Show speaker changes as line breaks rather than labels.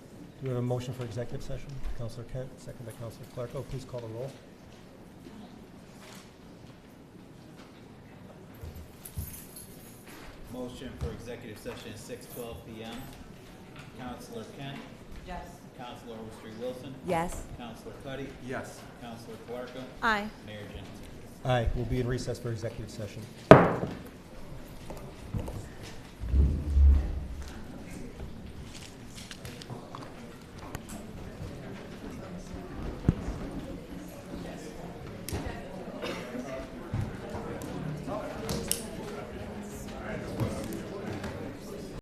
Do we have a motion for executive session? Counselor Kent, second by Counselor Clarko. Please call the roll.
Motion for executive session at six twelve P M. Counselor Kent,
Yes.
Counselor Overstreet Wilson,
Yes.
Counselor Cuddy,
Yes.
Counselor Clarko,
Aye.
Mayor Jennings.
Aye, we'll be in recess for executive session.